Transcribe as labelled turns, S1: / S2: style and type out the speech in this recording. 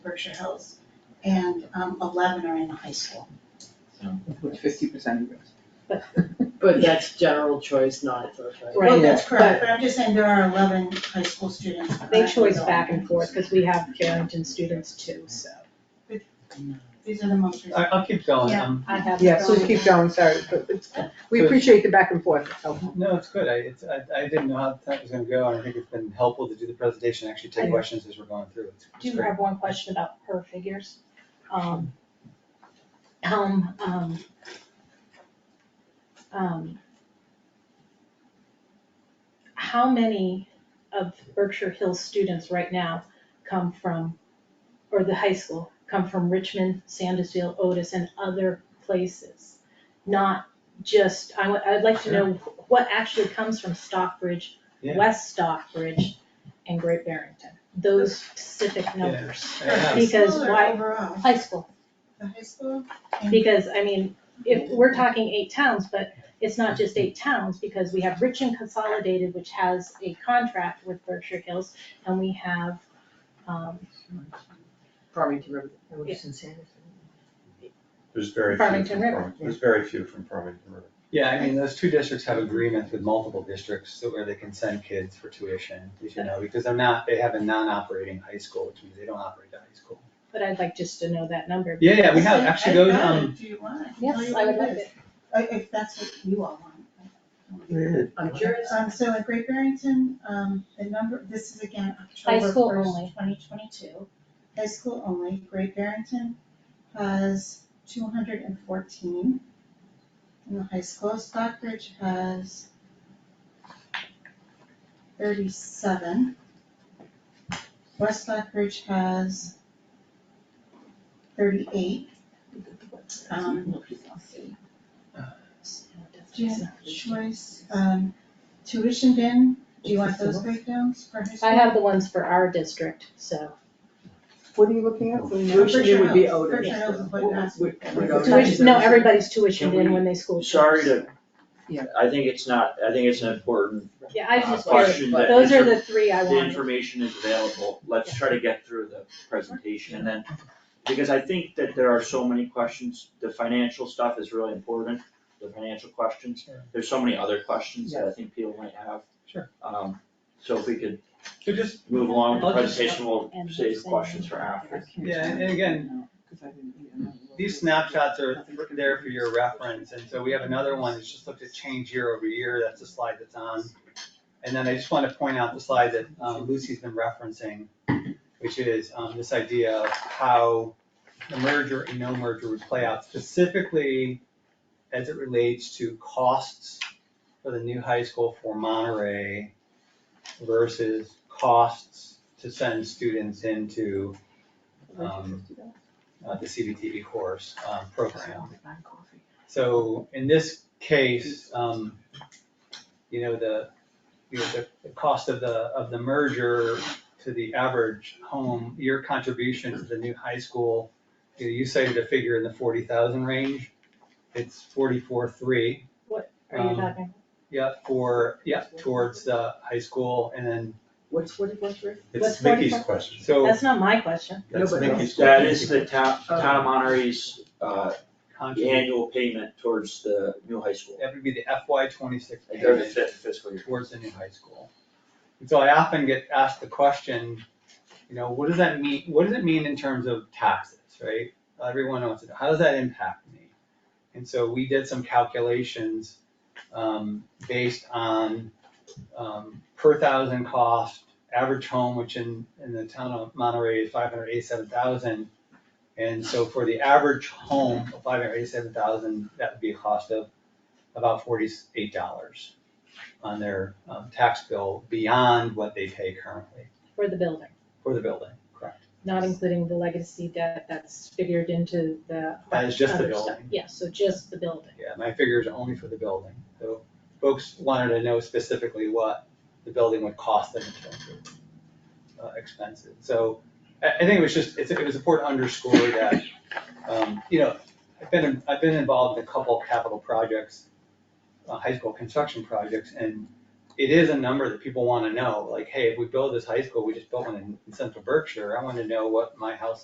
S1: Berkshire Hills, and um, eleven are in the high school.
S2: With fifty percent of us.
S3: But that's general choice, not for choice.
S1: Well,
S2: Right,
S1: that's
S2: yeah,
S1: correct, but I'm just saying there are eleven high school students.
S4: They
S1: currently
S4: choice
S1: going.
S4: back and forth, because we have Carrington students too, so
S1: These are the most
S5: I,
S1: recent.
S5: I'll keep going,
S1: Yeah.
S5: um,
S4: I have.
S2: Yeah, please keep going, sorry, but it's, we appreciate the back and forth,
S3: Oh,
S2: it's helpful.
S5: no, it's good, I, it's, I, I didn't know how that was gonna go, and I think it's been helpful to do the presentation, actually
S4: I
S5: take
S4: know.
S5: questions as we're going through, it's it's
S4: Do you
S5: great.
S4: have one question about her figures? Um, um, um, um, how many of Berkshire Hills students right now come from, or the high school, come from Richmond, Sandusville, Otis, and other places? Not just, I would, I'd like to know what actually comes from Stockbridge,
S5: Yeah.
S4: West Stockbridge, and Great Barrington, those specific numbers.
S1: The
S5: Yeah, it's-
S4: Because
S1: school or
S4: why-
S1: Overall,
S4: High school,
S1: the high school and
S4: because I mean, if, we're talking eight towns, but it's not just eight towns, because we have Rich and Consolidated, which has a contract with Berkshire Hills, and we have, um,
S3: Farmington River.
S6: There's very few.
S4: Farmington
S6: from
S4: River.
S6: Farming- There's very few from Farmington River.
S5: Yeah, I mean, those two districts have agreements with multiple districts so where they can send kids for tuition, as you know, because they're not, they have a non-operating high school, which means they don't operate the high school.
S4: but I'd like just to know that number.
S5: Yeah, yeah, we have,
S1: I-
S5: actually
S1: I've
S5: those,
S1: got it,
S5: um,
S1: Do you want? I can tell
S4: Yes,
S1: you
S4: I
S1: what
S4: would love
S1: is.
S4: it.
S1: I- If that's what you all want.
S3: I'm curious,
S1: Um, so at Great Barrington, um, the number, this is again
S4: High
S1: October
S4: school
S1: first,
S4: only.
S1: twenty twenty-two. High school only, Great Barrington has two hundred and fourteen in the high school. Stockbridge has thirty-seven. West Stockbridge has thirty-eight. Um, Jan- choice, um, tuition bin, do you want those breakdowns for high school?
S4: I have the ones for our district, so
S2: What are you looking at?
S3: Tuition it would be Otis.
S1: Berkshire Hills is what you asked.
S3: Would- would
S1: Yeah.
S3: Otis-
S4: tuition, no, everybody's tuitioned
S7: Can
S4: in
S7: we-
S4: when they school.
S7: Sorry
S4: starts.
S7: to, I think it's not, I think it's an important
S4: Yeah, I
S7: uh,
S4: just, curious.
S7: question that
S4: those are
S7: infor-
S4: the three I
S7: the
S4: wanted.
S7: information is available. Let's try to get through the presentation and then, because I think that there are so many questions. The financial stuff is really important, the financial questions.
S5: Sure.
S7: There's so many other questions that I think people might have.
S5: Sure.
S7: Um, so if we could
S5: so just,
S7: move along with the
S5: I'll just-
S7: presentation, we'll
S4: And
S7: save
S4: send
S7: questions
S4: it.
S7: for after.
S5: yeah, and again, these snapshots are there for your reference, and so we have another one that's just looked at change year over year, that's the slide that's on. And then I just wanna point out the slide that um, Lucy's been referencing, which is um, this idea of how the merger and no merger would play out specifically as it relates to costs for the new high school for Monterey versus costs to send students into um, uh, the CBTV course, um, program. So in this case, um, you know, the, you know, the, the cost of the, of the merger to the average home, your contribution to the new high school, you know, you cited a figure in the forty thousand range. It's forty-four, three,
S4: Are you
S5: um,
S4: talking,
S5: yeah, for, yeah, towards the high school and then,
S3: What's forty-four three?
S4: What's
S6: It's Mickey's
S4: forty-four?
S6: question.
S7: um,
S5: so
S4: that's not my question.
S6: That's
S3: No, but-
S6: Mickey's question.
S7: That is the town, town of Monterey's, uh, the
S5: contribution,
S7: annual payment towards the new high school.
S5: that would be the FY twenty-six
S7: Like,
S5: payment.
S7: Or the fifth fiscal year.
S5: towards the new high school. And so I often get asked the question, you know, what does that mean, what does it mean in terms of taxes, right? Everyone wants to know, how does that impact me? And so we did some calculations, um, based on, um, per thousand cost, average home, which in, in the town of Monterey is five hundred eighty-seven thousand. And so for the average home of five hundred eighty-seven thousand, that would be a cost of about forty-eight dollars on their um, tax bill beyond what they pay currently
S4: For the building,
S5: for the building, correct?
S4: not including the legacy debt that's figured into the
S5: That is just the
S4: other stuff.
S5: building.
S4: Yeah, so just the building.
S5: Yeah, my figures are only for the building, so folks wanted to know specifically what the building would cost them in terms of uh, expenses. So I, I think it was just, it's, it was important to underscore that, um, you know, I've been, I've been involved in a couple capital projects, uh, high school construction projects, and it is a number that people wanna know, like, hey, if we build this high school, we just built one in in Central Berkshire, I wanna know what my house